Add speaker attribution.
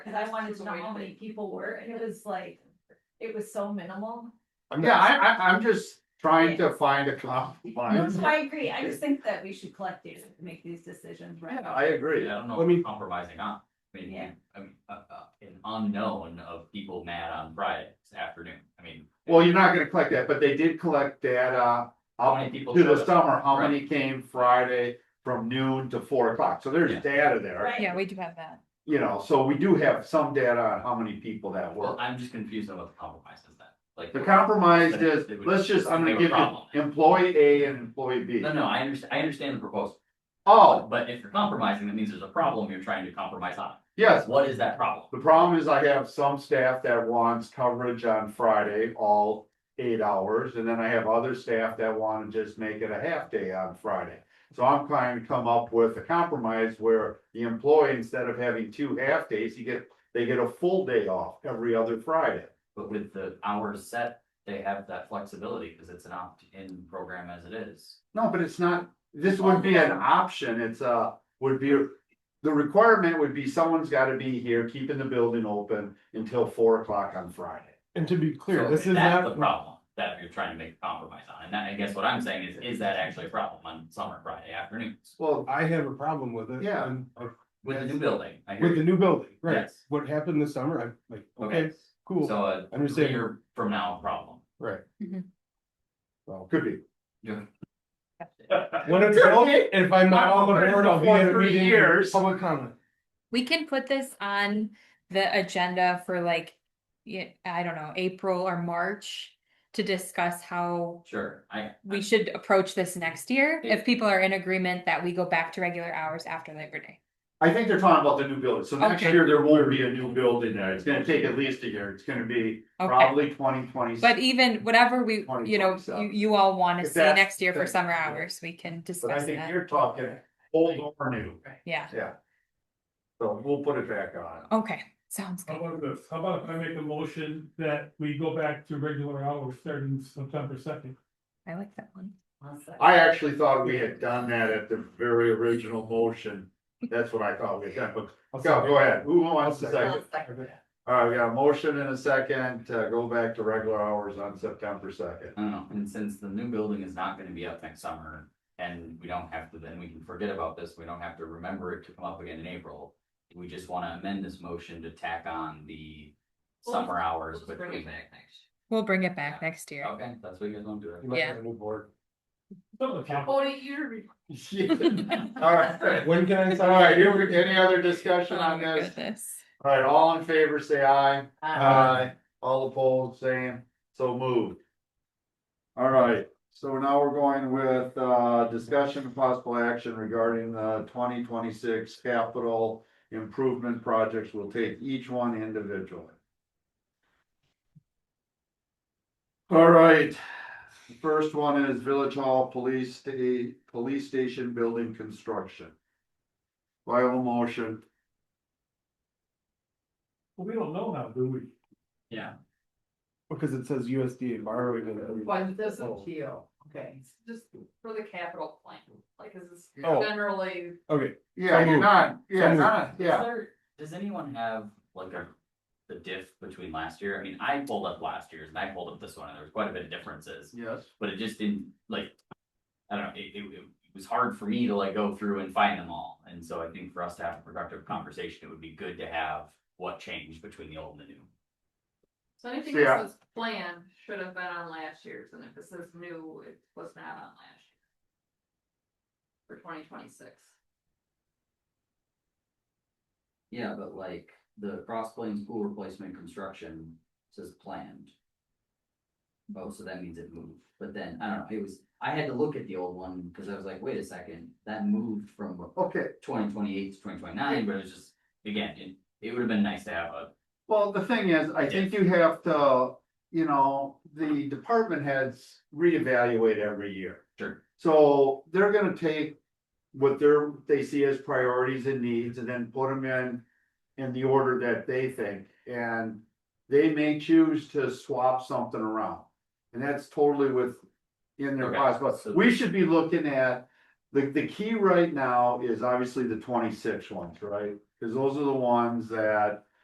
Speaker 1: Cause I wanted to know how many people were, and it was like, it was so minimal.
Speaker 2: I'm
Speaker 3: Yeah,
Speaker 2: not-
Speaker 3: I, I, I'm just trying to find a compromise.
Speaker 1: So I agree, I just think that we should collect data to make these decisions, right?
Speaker 2: Yeah, I agree.
Speaker 4: Yeah, I don't know
Speaker 2: I
Speaker 4: if we're
Speaker 2: mean,
Speaker 4: compromising on, I mean,
Speaker 1: Yeah.
Speaker 4: I mean, uh, uh, an unknown of people mad on Friday this afternoon, I mean.
Speaker 3: Well, you're not gonna collect that, but they did collect data
Speaker 4: How
Speaker 3: out
Speaker 4: many people?
Speaker 3: through the
Speaker 4: showed up?
Speaker 3: summer, how many came Friday from noon to four o'clock, so there's
Speaker 4: Yeah.
Speaker 3: data there.
Speaker 1: Right.
Speaker 5: Yeah, we do have that.
Speaker 3: You know, so we do have some data on how many people that
Speaker 4: Well,
Speaker 3: were.
Speaker 4: I'm just confused on what the compromise is then, like.
Speaker 3: The compromise
Speaker 4: Then
Speaker 3: is,
Speaker 4: it would-
Speaker 3: let's just, I'm
Speaker 4: they
Speaker 3: gonna
Speaker 4: were
Speaker 3: give
Speaker 4: problem.
Speaker 3: you employee A and employee B.
Speaker 4: No, no, I understand, I understand the proposal,
Speaker 3: Oh,
Speaker 4: but if you're compromising, that means there's a problem you're trying to compromise on.
Speaker 3: yes,
Speaker 4: What is that problem?
Speaker 3: the problem is I have some staff that wants coverage on Friday, all eight hours, and then I have other staff that wanna just make it a half day on Friday. So I'm trying to come up with a compromise where the employee, instead of having two half days, you get, they get a full day off every other Friday.
Speaker 4: But with the hours set, they have that flexibility because it's an opt-in program as it is.
Speaker 3: No, but it's not, this would be an option, it's a, would be, the requirement would be someone's gotta be here, keeping the building open until four o'clock on Friday.
Speaker 2: And to be
Speaker 4: So,
Speaker 2: clear, this
Speaker 4: okay,
Speaker 2: is
Speaker 4: That's the
Speaker 2: not,
Speaker 4: problem that you're trying to make a compromise on. And that, I guess what I'm saying is, is that actually a problem on summer Friday afternoons
Speaker 3: Well,
Speaker 2: I have a problem with it.
Speaker 3: Yeah.
Speaker 2: and, uh,
Speaker 4: with the new building? I hear
Speaker 2: With the
Speaker 4: you.
Speaker 2: new building, right?
Speaker 4: Yes.
Speaker 2: What happened this summer, I'm like,
Speaker 4: Okay.
Speaker 2: okay, cool,
Speaker 4: So a
Speaker 2: I'm just saying-
Speaker 4: year from now problem.
Speaker 2: right.
Speaker 3: well, could be.
Speaker 4: You're-
Speaker 2: When it's
Speaker 3: You're
Speaker 2: built,
Speaker 3: okay.
Speaker 2: if I'm not on the
Speaker 3: I've
Speaker 2: board,
Speaker 3: been
Speaker 2: I'll be at a
Speaker 3: for three
Speaker 2: meeting, for
Speaker 3: years.
Speaker 2: public comment.
Speaker 5: We can put this on the agenda for like, yeah, I don't know, April or March to discuss how
Speaker 4: Sure, I.
Speaker 3: Um,
Speaker 5: we should approach this next year,
Speaker 4: Yeah.
Speaker 5: if people are in agreement that we go back to regular hours after Labor Day.
Speaker 3: I think they're talking about the new building, so next
Speaker 5: Okay.
Speaker 3: year there won't be a new building there, it's gonna take at least a year, it's gonna be
Speaker 5: Okay,
Speaker 3: probably twenty twenty.
Speaker 5: but even whatever we, you know, you,
Speaker 3: 2027.
Speaker 5: you all wanna
Speaker 3: If
Speaker 5: see
Speaker 3: that's
Speaker 5: next year for
Speaker 3: the-
Speaker 5: summer hours, we can
Speaker 3: But I
Speaker 5: discuss
Speaker 3: think
Speaker 5: that,
Speaker 3: you're talking old or new,
Speaker 5: yeah,
Speaker 3: yeah. So we'll put it back on.
Speaker 5: okay, sounds
Speaker 6: How
Speaker 5: good.
Speaker 6: about this, how about if I make a motion that we go back to regular hours starting September second?
Speaker 5: I like that one.
Speaker 3: I actually thought we had done that at the very original motion, that's what I thought we had, done, but
Speaker 2: I'll
Speaker 3: Go, go
Speaker 2: second.
Speaker 3: ahead, who wants to second?
Speaker 2: Okay.
Speaker 3: All right, we got a motion and a second, to go back to regular hours on September second.
Speaker 4: I don't know, and since the new building is not gonna be up next summer, and we don't have to, then we can forget about this, we don't have to remember it to come up again in April. We just wanna amend this motion to tack on the summer hours between.
Speaker 5: We'll bring it back next year.
Speaker 4: Okay, that's what you guys want to do.
Speaker 2: You might
Speaker 5: Yeah.
Speaker 2: have a new board.
Speaker 3: All right,
Speaker 2: When can I
Speaker 3: all
Speaker 2: sign?
Speaker 3: right, here, we- any other discussion
Speaker 5: Oh
Speaker 3: on
Speaker 5: my
Speaker 3: this?
Speaker 5: goodness.
Speaker 3: All right, all in favor, say aye.
Speaker 7: Uh,
Speaker 3: Aye. All opposed, same, so moved. All right, so now we're going with, uh, discussion of possible action regarding the twenty twenty-six capital improvement projects. We'll take each one individually. All right, the first one is Village Hall Police Sta- Police Station Building Construction. By a motion,
Speaker 6: Well, we don't know now, do we?
Speaker 4: Yeah,
Speaker 2: Because it says USDA borrowing. and everything.
Speaker 7: But it doesn't
Speaker 2: Oh.
Speaker 7: feel, okay, it's just for the capital plan, like is this
Speaker 2: Oh.
Speaker 7: generally,
Speaker 2: Okay,
Speaker 3: yeah, you're
Speaker 2: moved.
Speaker 3: not, yeah,
Speaker 2: moved.
Speaker 3: not, yeah.
Speaker 4: Is there- Does anyone have like a, the diff between last year? I mean, I pulled up last year's and I pulled up this one and there was quite a bit of differences,
Speaker 3: Yes.
Speaker 4: but it just didn't like. I don't know, it, it, it was hard for me to like go through and find them all. And so I think for us to have a productive conversation, it would be good to have what changed between the old and the new.
Speaker 7: so anything
Speaker 3: Yeah.
Speaker 7: that says plan should have been on last year's, and if it says new, it was not on last year. For twenty twenty-six.
Speaker 4: Yeah, but like the Cross Plains pool replacement construction says planned. Oh, so that means it moved, but then, I don't know, it was, I had to look at the old one, cause I was like, wait a second, that moved from
Speaker 3: Okay,
Speaker 4: twenty twenty-eight to twenty twenty-nine, but it was just, again, it, it would have been nice to have a.
Speaker 3: well, the thing is, I think you have to, you know, the department heads reevaluate every year.
Speaker 4: Sure.
Speaker 3: So they're gonna take what they're, they see as priorities and needs and then put them in, in the order that they think. And they may choose to swap something around. And that's totally with, in their
Speaker 4: Okay,
Speaker 3: possible,
Speaker 4: so-
Speaker 3: we should be looking at, the, the key right now is obviously the twenty-six ones, right? Cause those are the ones that